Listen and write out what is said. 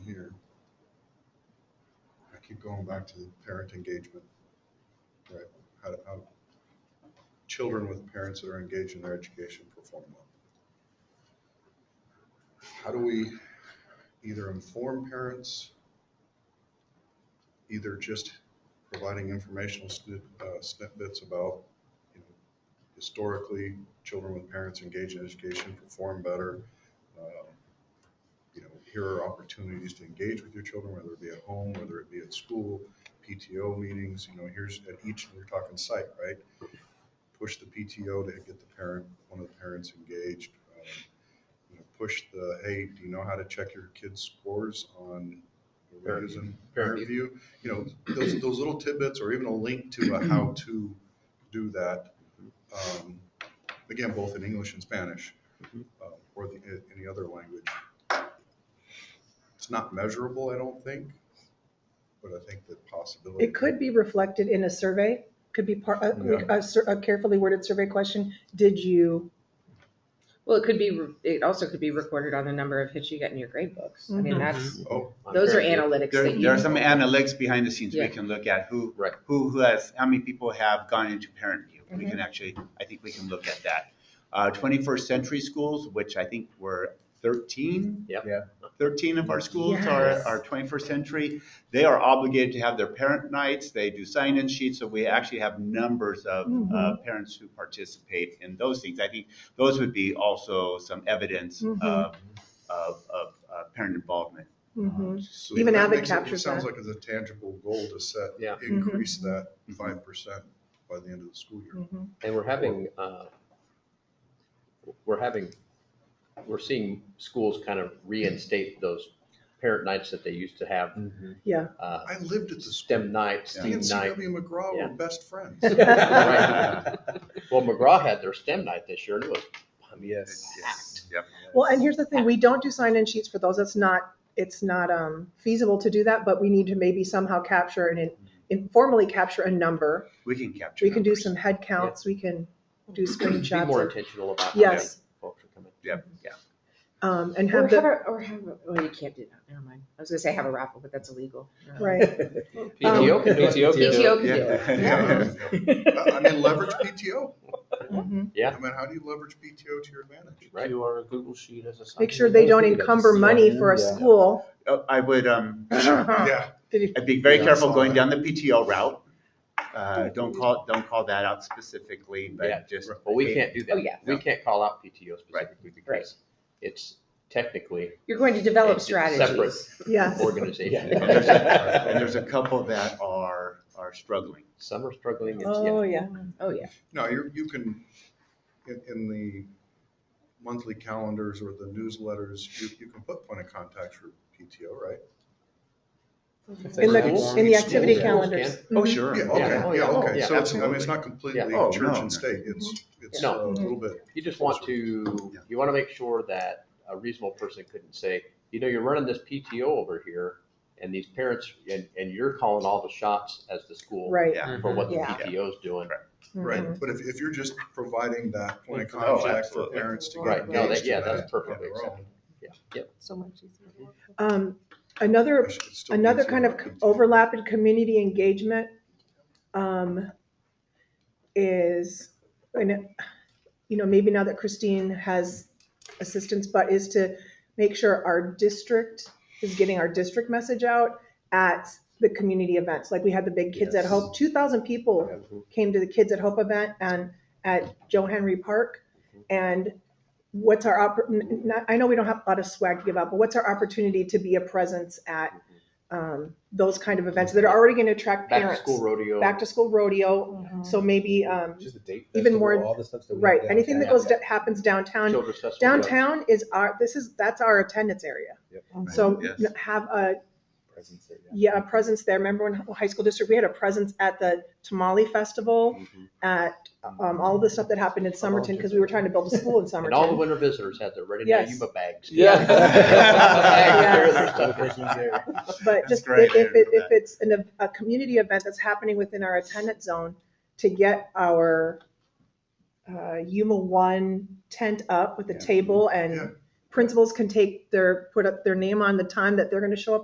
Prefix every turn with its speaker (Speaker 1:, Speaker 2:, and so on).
Speaker 1: going back to the parent engagement, right? How, how children with parents that are engaged in their education perform well. How do we either inform parents, either just providing informational snip- uh, snippets about, you know, historically, children with parents engaged in education perform better. Um, You know, here are opportunities to engage with your children, whether it be at home, whether it be at school, PTO meetings, you know, here's at each, we're talking site, right? Push the PTO to get the parent, one of the parents engaged. um, you know, Push the, hey, do you know how to check your kids' scores on, we're
Speaker 2: Parent
Speaker 1: using
Speaker 2: Parent
Speaker 1: parent view? You know, those, those little tidbits or even a link to a how to do that. um, Again, both in English and Spanish,
Speaker 2: Mhm.
Speaker 1: um, or the, any other language. It's not measurable, I don't think, but I think the possibility.
Speaker 3: It could be reflected in a survey, could be part, a- like a sur- a carefully worded survey question. Did you,
Speaker 4: Well, it could be, re- it also could be recorded on the number of hits you get in your grade books. I mean,
Speaker 3: Mhm.
Speaker 4: that's,
Speaker 1: Oh,
Speaker 4: those are
Speaker 2: Very good.
Speaker 4: analytics
Speaker 5: Mm-hmm. There,
Speaker 4: that
Speaker 5: there
Speaker 4: you,
Speaker 5: are some analytics behind the scenes we
Speaker 4: Yeah.
Speaker 5: can look at, who,
Speaker 2: Right.
Speaker 5: who, who has, how many people have gone into parent view. We
Speaker 4: Mm-hmm.
Speaker 5: can actually, I think we can look at that. Uh, twenty-first century schools, which I think were thirteen.
Speaker 2: Yep.
Speaker 5: Yeah. Thirteen of our schools are,
Speaker 3: Yes.
Speaker 5: are twenty-first century. They are obligated to have their parent nights, they do sign-in sheets, so we actually have numbers of, uh,
Speaker 4: Mm-hmm.
Speaker 3: Mhm.
Speaker 5: parents who participate in those things. I think those would be also some evidence
Speaker 4: Mm-hmm.
Speaker 3: Mhm.
Speaker 5: of, of, of, uh, parent involvement.
Speaker 4: Mm-hmm.
Speaker 3: Mhm.
Speaker 1: so
Speaker 3: Even
Speaker 1: that
Speaker 3: Avid
Speaker 1: makes it-
Speaker 3: captures
Speaker 1: It sounds
Speaker 3: that. Mm-hmm.
Speaker 1: like it's a tangible goal to set.
Speaker 2: Yeah. Mm-hmm.
Speaker 1: Increase that five percent by the end of the school year.
Speaker 3: Mhm.
Speaker 2: And we're having, uh, we're having, we're seeing schools kind of reinstate those parent nights that they used to have. uh,
Speaker 1: I lived at the school.
Speaker 2: STEM night,
Speaker 1: Me
Speaker 2: STEAM
Speaker 1: and
Speaker 2: night.
Speaker 1: C.W. McGraw
Speaker 2: Yeah.
Speaker 1: were best friends.
Speaker 2: Right. Well, McGraw had their STEM night this year and it was, I mean,
Speaker 5: Yes. Yep.
Speaker 3: Well, and here's the thing, we don't do sign-in sheets for those. It's not, it's not um, feasible to do that, but we need to maybe somehow capture and in- informally capture a number.
Speaker 5: We can capture.
Speaker 3: We can do
Speaker 5: numbers.
Speaker 3: some head counts, we can do
Speaker 2: be more
Speaker 3: screenshots.
Speaker 2: intentional about. how many
Speaker 3: Yes,
Speaker 2: Folks are coming.
Speaker 5: Yep, yeah.
Speaker 3: um, and
Speaker 4: or
Speaker 3: have
Speaker 4: have
Speaker 3: the,
Speaker 4: a, or have, a- well, you can't do that, never mind. I was gonna say have a raffle, but that's illegal.
Speaker 3: right. Um,
Speaker 2: PTO can do it.
Speaker 1: PTO
Speaker 4: PTO can do it.
Speaker 5: Yeah.
Speaker 1: I I mean, leverage PTO.
Speaker 3: Mhm.
Speaker 2: Yeah.
Speaker 1: I mean, how do you leverage PTO to your advantage?
Speaker 2: Right.
Speaker 6: to our Google Sheet as a.
Speaker 3: Make sure they don't encumber money for a
Speaker 6: Yeah.
Speaker 3: school.
Speaker 5: Oh, I would, um,
Speaker 1: Yeah,
Speaker 3: Did you-
Speaker 5: I'd be very
Speaker 1: Yeah, I
Speaker 5: careful
Speaker 1: saw
Speaker 5: going
Speaker 1: that.
Speaker 5: down the PTO route.
Speaker 3: Oh,
Speaker 5: Uh, don't call, don't call that out specifically,
Speaker 2: Yeah,
Speaker 5: but just.
Speaker 2: But we can't do that.
Speaker 4: Oh, yeah.
Speaker 2: We can't call out PTO
Speaker 5: Right.
Speaker 2: specifically because it's technically
Speaker 4: You're going to
Speaker 2: a
Speaker 4: develop
Speaker 2: separate
Speaker 4: strategies.
Speaker 3: Yes.
Speaker 5: And
Speaker 2: organization.
Speaker 5: there's a- and there's a couple that are, are struggling.
Speaker 2: Some are struggling. it's- yeah.
Speaker 3: Oh, yeah.
Speaker 4: Oh, yeah.
Speaker 1: no, you, you can, in, in the monthly calendars or the newsletters, you, you can put point of contacts for PTO, right?
Speaker 3: In the,
Speaker 2: Schools-
Speaker 3: in the
Speaker 2: schools
Speaker 3: activity
Speaker 2: can.
Speaker 3: calendars.
Speaker 5: Oh,
Speaker 3: Mhm.
Speaker 5: sure.
Speaker 1: Yeah,
Speaker 2: Yeah. Oh,
Speaker 1: okay,
Speaker 2: yeah.
Speaker 1: yeah, okay.
Speaker 2: Yeah,
Speaker 1: So it's, I mean,
Speaker 5: absolutely.
Speaker 1: it's not completely
Speaker 2: Yeah.
Speaker 5: Oh,
Speaker 1: church
Speaker 5: no, no.
Speaker 1: and state. It's, it's
Speaker 2: No.
Speaker 1: a little bit.
Speaker 2: You just want to, you want to make sure that a reasonable person couldn't say, you know, you're running this PTO over here and these parents, and, and you're calling all the shots as the school
Speaker 3: Right. Mm-hmm.
Speaker 5: Yeah.
Speaker 6: Mm-hmm.
Speaker 2: for what the
Speaker 3: Yeah.
Speaker 2: PTO's doing.
Speaker 1: Right, but if, if you're just providing that point of
Speaker 5: Oh,
Speaker 1: contact for
Speaker 5: absolutely.
Speaker 1: parents to get
Speaker 2: Mm-hmm. Right, no, that,
Speaker 1: engaged
Speaker 2: yeah,
Speaker 1: in
Speaker 2: that's
Speaker 1: that.
Speaker 2: perfectly
Speaker 1: on their own,
Speaker 2: acceptable. Yeah, yep.
Speaker 4: So much easier.
Speaker 3: Um, Another,
Speaker 1: I should- it still
Speaker 3: another
Speaker 1: needs
Speaker 3: kind of
Speaker 1: little
Speaker 3: overlap in community engagement um, is, and, you know, maybe now that Christine has assistance, but is to make sure our district is getting our district message out at the community events. Like we had the big Kids at
Speaker 2: Yes.
Speaker 3: Hope, 2,000 people came to the Kids at Hope event and at Joe Henry Park. And what's our, oppor- n- n- I know we don't have a lot of swag to give out, but what's our opportunity to be a presence at um, those kind of events that are already going to attract
Speaker 2: Back to
Speaker 3: parents?
Speaker 2: school rodeo.
Speaker 3: Back to school rodeo. So maybe, um,
Speaker 6: Just a date.
Speaker 3: Even
Speaker 6: festival,
Speaker 3: more-
Speaker 6: all the stuff that we
Speaker 3: right,
Speaker 6: have
Speaker 3: anything that
Speaker 6: downtown.
Speaker 3: goes, that happens downtown.
Speaker 2: Children's festival.
Speaker 3: Downtown is our, this is, that's our attendance area. So
Speaker 5: Yes.
Speaker 3: n- have a,
Speaker 6: Presence there, yeah.
Speaker 3: yeah, a presence there. Remember when high school district, we had a presence at the Tamale Festival,
Speaker 2: Mhm.
Speaker 3: at um, all the stuff that happened in Somerton, because we were trying to build a school in
Speaker 2: And all the
Speaker 3: Somerton.
Speaker 2: winter visitors had their ready now
Speaker 3: Yes.
Speaker 2: Yuma bags.
Speaker 6: Yeah.
Speaker 3: Yes.
Speaker 2: There's stuff in
Speaker 3: But
Speaker 5: That's
Speaker 3: just
Speaker 5: great,
Speaker 3: if, if
Speaker 5: I
Speaker 3: it,
Speaker 5: didn't know
Speaker 3: if it's an, ev- a community event that's happening within our attendance zone to get our uh, Yuma One tent up with a
Speaker 5: Yeah.
Speaker 3: table
Speaker 1: Yeah.
Speaker 3: and principals can take their, put up their name on the time that they're gonna show up